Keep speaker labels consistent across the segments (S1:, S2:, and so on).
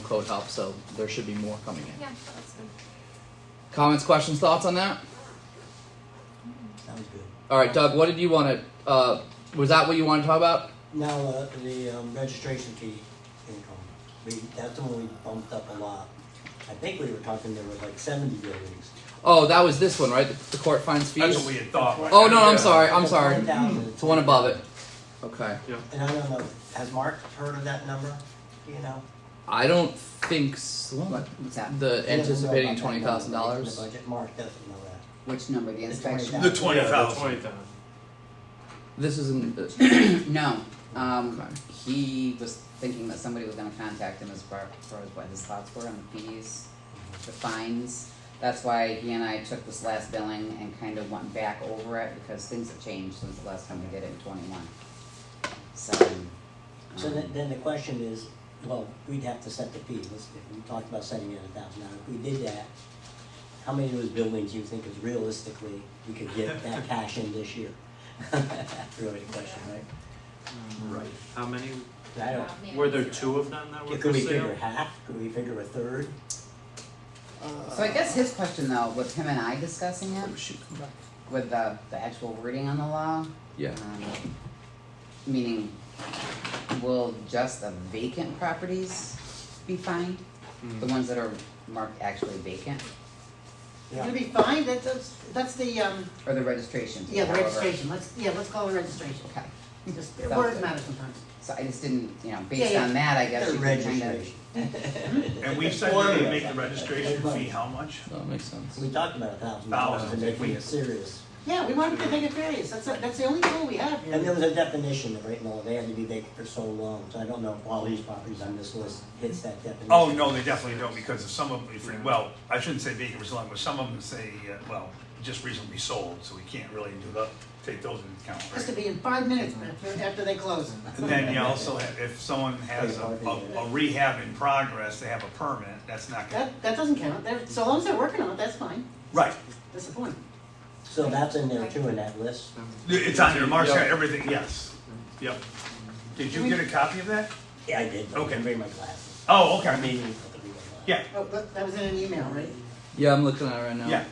S1: code help, so there should be more coming in.
S2: Yeah, that's good.
S1: Comments, questions, thoughts on that?
S3: Sounds good.
S1: All right, Doug, what did you want to? Uh, was that what you wanted to talk about?
S3: Now, uh, the um, registration fee income, we, that's the one we bumped up a lot. I think we were talking there was like seventy buildings.
S1: Oh, that was this one, right? The, the court finds fees.
S4: That's what we had thought.
S1: Oh no, I'm sorry. I'm
S3: The
S1: sorry.
S3: 10,000.
S1: It's the one above it. Okay.
S3: And I don't know, has Mark heard of that number, Do you know?
S1: I don't think s
S5: What, what's that?
S1: the
S3: He doesn't know
S1: anticipating
S3: about that
S1: twenty
S3: number
S1: thousand
S3: in the
S1: dollars.
S3: budget. Mark doesn't know that.
S5: Which number, the
S3: The
S5: inspection?
S3: 20,000.
S4: The twenty
S6: Twenty
S4: thousand.
S6: thousand.
S1: This isn't. Uh,
S5: No, um,
S1: Okay.
S5: he was thinking that somebody was gonna contact him as far, as far as what his thoughts were on the fees, the fines. That's why he and I took this last billing and kind of went back over it, because things have changed since the last time we did it in twenty-one. So,
S3: So then,
S5: um,
S3: then the question is, well, we'd have to set the fee, let's, if we talked about setting it a thousand, now, if we did that, how many of those buildings do you think is realistically, we could get that cash in this year? That's really the question, right?
S6: Right. How many,
S3: I don't,
S2: Not me,
S6: were there
S2: zero.
S6: two of them that were
S3: could
S6: for
S3: we figure
S6: sale?
S3: half, could we figure a third?
S5: so I guess his question though, with him and I discussing
S1: oh,
S5: it,
S1: shoot.
S5: with the, the actual wording on the law,
S1: Yeah.
S5: Um, Meaning, will just the vacant properties be fined? The
S3: Hmm.
S5: ones that are marked actually vacant,
S7: It's gonna be fine, that's, that's, that's the, um,
S5: or the registration?
S7: yeah, the
S5: however?
S7: registration, let's, yeah, let's call it registration.
S5: Okay,
S7: Just,
S5: Sounds
S7: words
S5: good.
S7: matter sometimes.
S5: so I just didn't, you know, based
S7: yeah.
S5: on that, I guess
S3: The
S5: you can kind of,
S3: registration.
S4: And we said we would make the registration fee how much?
S1: That makes sense.
S3: We talked about a thousand dollars to
S4: Thousand,
S3: make
S4: we-
S3: it serious.
S7: Yeah, we want to make it various, that's, that's the only goal we have
S3: And there
S7: here.
S3: was a definition of right now, they had to be vacant for so long, so I don't know if all these properties on this list hits that definition.
S4: Oh, no, they definitely don't, because of some of them, if- well, I shouldn't say vacant for so long, but some of them say, uh, well, just recently sold, so we can't really do the, take those into account,
S7: Has to
S4: right?
S7: be in five minutes after, after they close.
S4: And then you also have, if someone has a, a a rehab in progress, they have a permit, that's not gonna,
S7: That, that doesn't count, They're- so long as they're working on it, that's fine,
S4: right.
S7: that's the point.
S3: So that's in there too, in that list.
S4: It's on there, Mark's got
S1: Yeah.
S4: everything, yes, yep. Did you get a copy of that?
S3: Yeah, I did.
S4: Okay.
S3: I bring my glasses.
S4: Oh,
S3: I
S4: okay,
S3: mean,
S4: yeah,
S7: Oh, that, that was in an email, right?
S1: Yeah, I'm looking at it right now.
S4: yeah,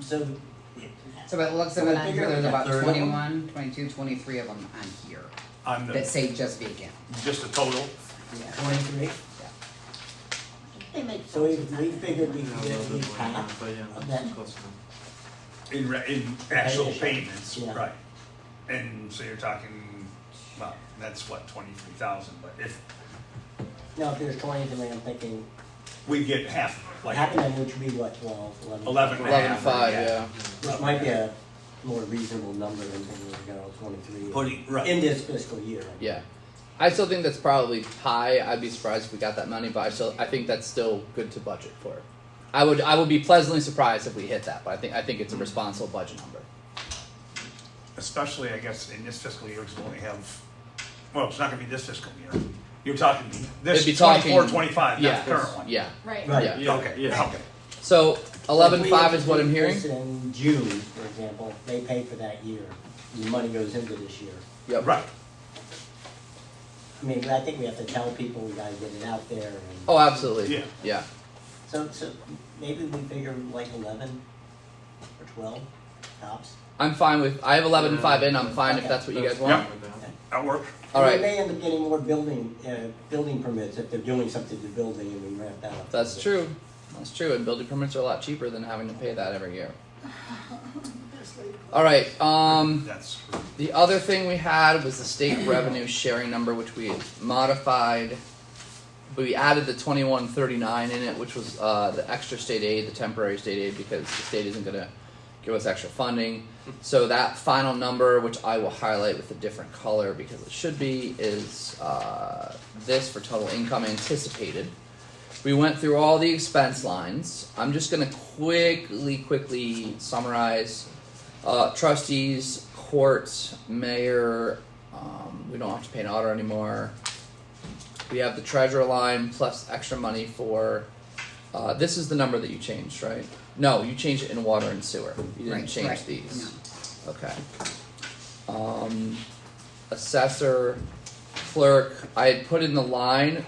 S3: So,
S5: so by the looks of
S3: Well,
S5: it
S3: I
S5: on
S3: figure
S5: here,
S3: like
S5: there's
S3: a
S5: about
S3: third of them.
S5: 21, 22, 23 of them on here,
S4: on
S5: that
S4: the,
S5: say just vacant,
S4: just a total.
S5: yeah,
S3: twenty-three,
S7: They make.
S3: so we, we figured we
S6: Yeah,
S3: could
S6: a
S3: get
S6: little
S3: at
S6: bit
S3: least
S6: more, yeah,
S3: half.
S6: but yeah,
S3: of
S6: that's
S3: that.
S6: close enough.
S4: In, re- in actual
S3: Payments,
S4: payments,
S3: yeah.
S4: right. And so you're talking, well, that's what, twenty-three thousand, but if
S3: Now, if there's twenty-three, I'm thinking,
S4: we get half, like
S3: half of them, which would be what, twelve, eleven?
S4: eleven and a
S1: Eleven to
S4: half.
S1: five. Yeah.
S3: Which might be a more reasonable number than thinking we're gonna go twenty-three
S4: Putting, right,
S3: in this fiscal year.
S1: Yeah. I still think that's probably high. I'd be surprised if we got that money, but I still I think that's still good to budget for. I would I would be pleasantly surprised if we hit that, but I think I think it's a responsible budget number.
S4: especially, I guess, in this fiscal year, because we only have, well, it's not gonna be this fiscal year. You're talking this
S1: It'd be
S4: twenty-four,
S1: talking-
S4: twenty-five,
S1: yeah.
S4: not the current one.
S1: Yeah.
S2: Right.
S3: Right.
S1: Yeah.
S6: Yeah,
S4: Okay,
S6: yeah.
S4: okay.
S1: So eleven
S3: If we
S1: five
S3: were
S1: is
S3: to
S1: what
S3: do
S1: I'm hearing.
S3: this In June, for example, they pay for that year, the money goes into this year.
S1: Yep.
S4: Right,
S3: I mean, I think we have to tell people, we gotta get it out there and.
S1: Oh, absolutely.
S4: Yeah.
S1: Yeah.
S3: So, so maybe we figure like eleven or twelve tops.
S1: I'm fine with. I have eleven and five in. I'm fine if
S3: Okay.
S1: that's what you guys
S6: That's
S1: want.
S6: fine with that.
S4: that work.
S1: All
S3: We
S1: right.
S3: may end up getting more building, uh, building permits if they're doing something to building and we ramp that up.
S1: That's true. That's true. And building permits are a lot cheaper than having to pay that every year. All right. Um,
S4: That's,
S1: the other thing we had was the state revenue sharing number, which we had modified. We added the twenty one thirty nine in it, which was uh, the extra state aid, the temporary state aid, because the state isn't going to give us extra funding. So that final number, which I will highlight with a different color because it should be, is uh, this for total income anticipated. We went through all the expense lines. I'm just gonna quickly, quickly summarize. Uh, trustees, courts, mayor. Um, we don't have to pay an auditor anymore. We have the treasurer line plus extra money for. Uh, this is the number that you changed, right? No, you changed it in water and sewer. You didn't
S5: Right,
S1: change
S5: right,
S1: these. Okay. Um, assessor, clerk. I had put in the line